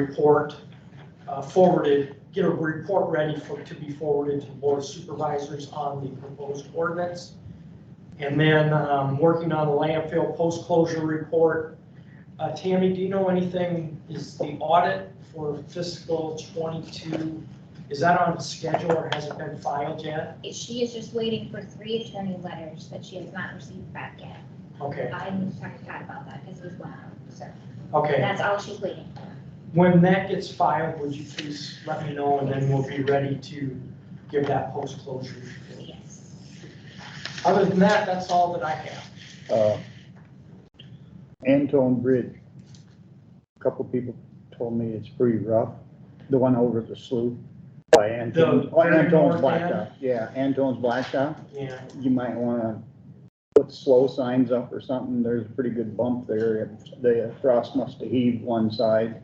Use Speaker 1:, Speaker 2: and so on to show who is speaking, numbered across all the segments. Speaker 1: report uh, forwarded, get a report ready for, to be forwarded to the board of supervisors on the proposed ordinance. And then, um, working on the landfill post-closure report. Uh, Tammy, do you know anything, is the audit for fiscal twenty-two, is that on schedule or has it been filed yet?
Speaker 2: She is just waiting for three attorney letters that she has not received back yet.
Speaker 1: Okay,
Speaker 2: I need to talk to Todd about that because he's one of them, so
Speaker 1: okay.
Speaker 2: that's all she's waiting for.
Speaker 1: When that gets filed, would you please let me know, and then we'll be ready to give that post-closure. report.
Speaker 2: Yes.
Speaker 1: Other than that, that's all that I have.
Speaker 3: uh, Antone Bridge. A Couple people told me it's pretty rough, the one over the slough by Antone.
Speaker 1: The
Speaker 3: Oh,
Speaker 1: very
Speaker 3: Antone's
Speaker 1: north end?
Speaker 3: Blacktop, yeah, Antone's Blacktop.
Speaker 1: Yeah,
Speaker 3: You might wanna put slow signs up or something, there's a pretty good bump there, the frost must have heaved one side.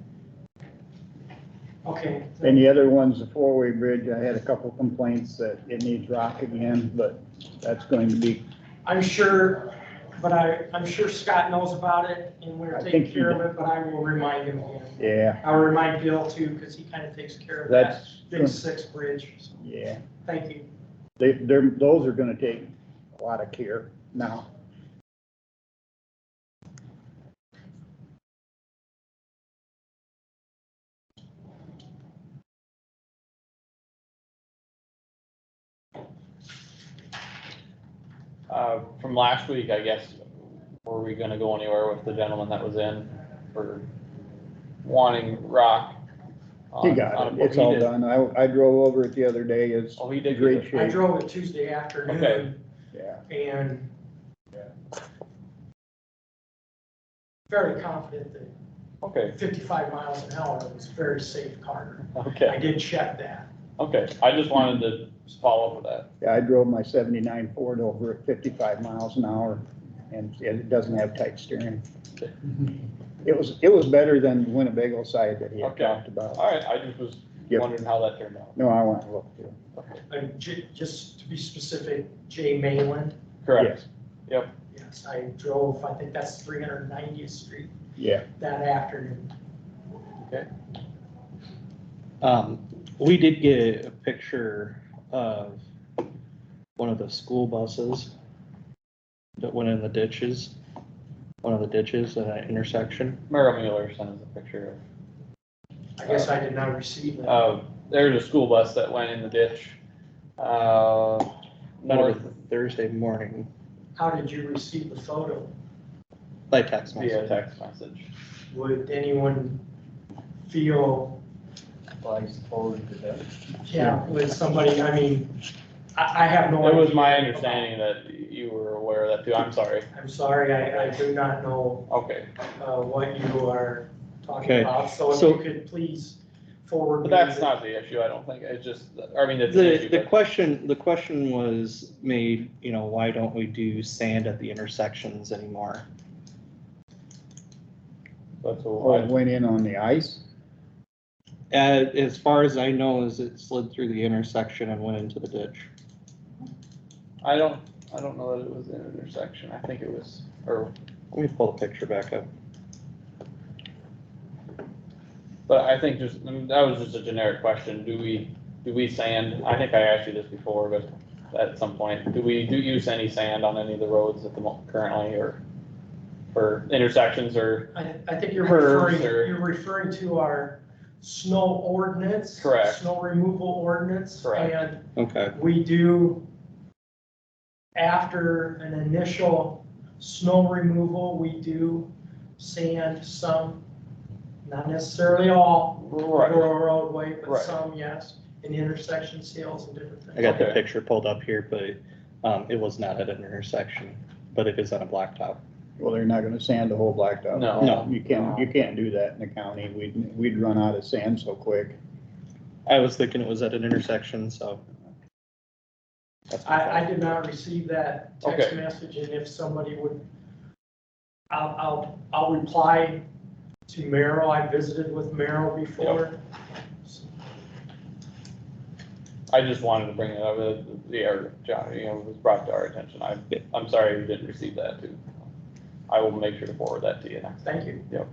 Speaker 1: okay.
Speaker 3: And the other one's the four-way bridge, I had a couple complaints that it needs rock again, but that's going to be,
Speaker 1: I'm sure, but I, I'm sure Scott knows about it, and we're
Speaker 3: I
Speaker 1: taking
Speaker 3: think he
Speaker 1: care of it, but I will remind him again.
Speaker 3: yeah,
Speaker 1: I'll remind Bill too, because he kind of takes care of that
Speaker 3: that's,
Speaker 1: big six bridge. So,
Speaker 3: yeah.
Speaker 1: Thank you.
Speaker 3: They, they're, those are gonna take a lot of care now.
Speaker 4: Uh, From last week, I guess, were we gonna go anywhere with the gentleman that was in for wanting rock?
Speaker 3: He
Speaker 4: on-
Speaker 3: got
Speaker 4: on
Speaker 3: it,
Speaker 4: a-
Speaker 3: it's
Speaker 4: he
Speaker 3: all
Speaker 4: did.
Speaker 3: done. I, I drove over it the other day, it's
Speaker 4: Oh, he
Speaker 3: in
Speaker 4: did.
Speaker 3: great
Speaker 4: get it.
Speaker 1: I
Speaker 3: shape.
Speaker 1: drove it Tuesday afternoon,
Speaker 3: Yeah,
Speaker 1: and very confident that
Speaker 4: Okay,
Speaker 1: 55 miles an hour was a very safe car. I
Speaker 4: okay,
Speaker 1: did check that.
Speaker 4: okay. I just wanted to just follow up with that.
Speaker 3: yeah, I drove my seventy-nine Ford over at fifty-five miles an hour and it doesn't have tight steering. Mm-hmm. It was, it was better than the Winnebago side that he had
Speaker 4: Okay.
Speaker 3: talked about.
Speaker 4: All right, I just was
Speaker 3: Yep.
Speaker 4: wondering how that turned out.
Speaker 3: No, I want to look too.
Speaker 1: And J- just to be specific, Jay Mayland,
Speaker 4: Correct.
Speaker 1: yes, I drove, I think that's 390th Street
Speaker 3: Yeah,
Speaker 1: that afternoon.
Speaker 5: Um, we did get a picture of one of the school buses that went in the ditches, one of the ditches at that intersection.
Speaker 4: Merrill Mueller sent us a picture
Speaker 1: I guess I did not receive
Speaker 4: of,
Speaker 1: that.
Speaker 4: uh, there's a school bus that went in the ditch. Uh,
Speaker 5: Might have
Speaker 4: north,
Speaker 5: been Thursday morning,
Speaker 1: How did you receive the photo?
Speaker 5: by text
Speaker 4: via
Speaker 5: message.
Speaker 4: text message.
Speaker 1: Would anyone feel,
Speaker 6: Flags forward to them.
Speaker 1: yeah, with somebody, I mean, I, I have no
Speaker 4: It
Speaker 1: idea.
Speaker 4: was my understanding that you were aware of that too. I'm sorry.
Speaker 1: I'm sorry, I, I do not know
Speaker 4: Okay.
Speaker 1: uh, what you are talking
Speaker 5: Okay,
Speaker 1: about. So if
Speaker 5: so-
Speaker 1: you could please forward.
Speaker 4: But
Speaker 1: me
Speaker 4: that's
Speaker 1: the-
Speaker 4: not the issue, I don't think, it's just, I mean, it's an
Speaker 5: The,
Speaker 4: issue,
Speaker 5: the
Speaker 4: but,
Speaker 5: question, the question was made, you know, why don't we do sand at the intersections anymore?
Speaker 4: but so
Speaker 3: oh, it
Speaker 4: why-
Speaker 3: went in on the ice.
Speaker 5: Uh, as far as I know, is it slid through the intersection and went into the ditch.
Speaker 4: I don't, I don't know that it was an intersection, I think it was, or,
Speaker 5: Let me pull the picture back up.
Speaker 4: but I think just, I mean, that was just a generic question, do we, do we sand? I think I asked you this before, but at some point, do we, do use any sand on any of the roads at the, mo- currently, or for intersections, or,
Speaker 1: I, I think you're
Speaker 4: Curves
Speaker 1: referring,
Speaker 4: or-
Speaker 1: you're referring to our snow ordinance.
Speaker 4: Correct.
Speaker 1: Snow removal ordinance.
Speaker 4: Correct.
Speaker 1: And
Speaker 5: Okay,
Speaker 1: we do, after an initial snow removal, we do sand some, not necessarily all,
Speaker 4: right,
Speaker 1: rural roadway, but
Speaker 4: Right.
Speaker 1: some, yes, in intersections, hills and different things.
Speaker 5: I got the
Speaker 4: Okay.
Speaker 5: picture pulled up here, but, um, it was not at an intersection, but it is on a blacktop.
Speaker 3: Well, they're not gonna sand the whole blacktop.
Speaker 4: No.
Speaker 5: No.
Speaker 3: You can't, you can't do that in the county. We'd, we'd run out of sand so quick.
Speaker 5: I was thinking it was at an intersection, so. that's my
Speaker 1: I, I
Speaker 5: fault.
Speaker 1: did not receive that text
Speaker 4: Okay.
Speaker 1: message, and if somebody would, I'll, I'll, I'll reply to Merrill, I visited with Merrill before.
Speaker 4: I just wanted to bring it up, uh, the, or, John, you know, it was brought to our attention, I,
Speaker 5: Yeah.
Speaker 4: I'm sorry you didn't receive that too. I will make sure to forward that to you next
Speaker 1: Thank you.
Speaker 4: Yep.